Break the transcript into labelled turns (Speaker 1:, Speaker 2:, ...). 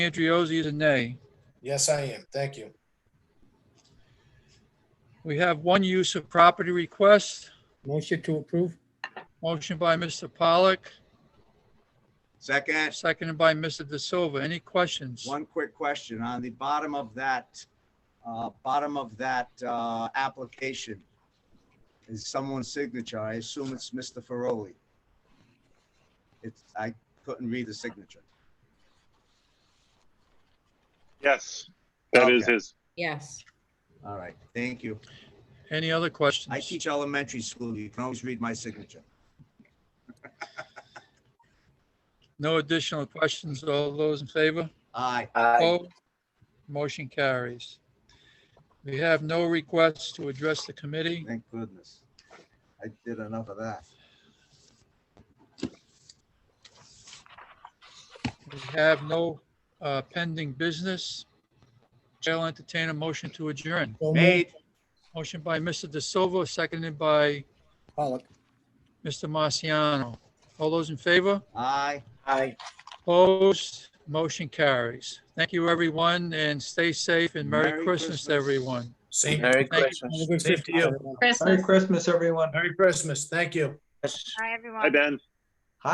Speaker 1: Andriozzi is a nay.
Speaker 2: Yes, I am. Thank you.
Speaker 1: We have one use of property request,
Speaker 3: Motion to approve?
Speaker 1: motion by Mr. Pollock,
Speaker 4: Second,
Speaker 1: seconded by Mr. De Silva. Any questions?
Speaker 4: one quick question. On the bottom of that, uh, bottom of that, uh, application is someone's signature. I assume it's Mr. Feroli. It's, I couldn't read the signature.
Speaker 5: Yes, that is
Speaker 4: Okay.
Speaker 5: his.
Speaker 6: Yes,
Speaker 4: All right, thank you.
Speaker 1: Any other
Speaker 4: I
Speaker 1: questions?
Speaker 4: teach elementary school. You can always read my signature.
Speaker 1: No additional questions. All those in favor?
Speaker 4: Aye.
Speaker 1: Opposed? Motion carries. We have no requests to address the committee.
Speaker 4: Thank goodness. I did enough of that.
Speaker 1: We have no uh, pending business. Chair will entertain a motion to adjourn.
Speaker 3: So moved.
Speaker 4: Made,
Speaker 1: Motion by Mr. De Silva, seconded by
Speaker 3: Pollock.
Speaker 1: Mr. Marciano. All those in favor?
Speaker 4: aye.
Speaker 1: Opposed? Motion carries. Thank you, everyone, and stay safe and Merry
Speaker 4: Merry
Speaker 1: Christmas,
Speaker 4: Christmas.
Speaker 1: to everyone.
Speaker 2: See, you.
Speaker 7: Merry
Speaker 1: Thank you.
Speaker 7: Christmas.
Speaker 3: Have a good
Speaker 7: Same to you.
Speaker 3: Christmas.
Speaker 6: Christmas.
Speaker 7: Merry Christmas, everyone.
Speaker 2: Merry Christmas. Thank you.
Speaker 7: Yes.
Speaker 8: Hi,
Speaker 5: Hi,
Speaker 8: everyone.
Speaker 5: Ben.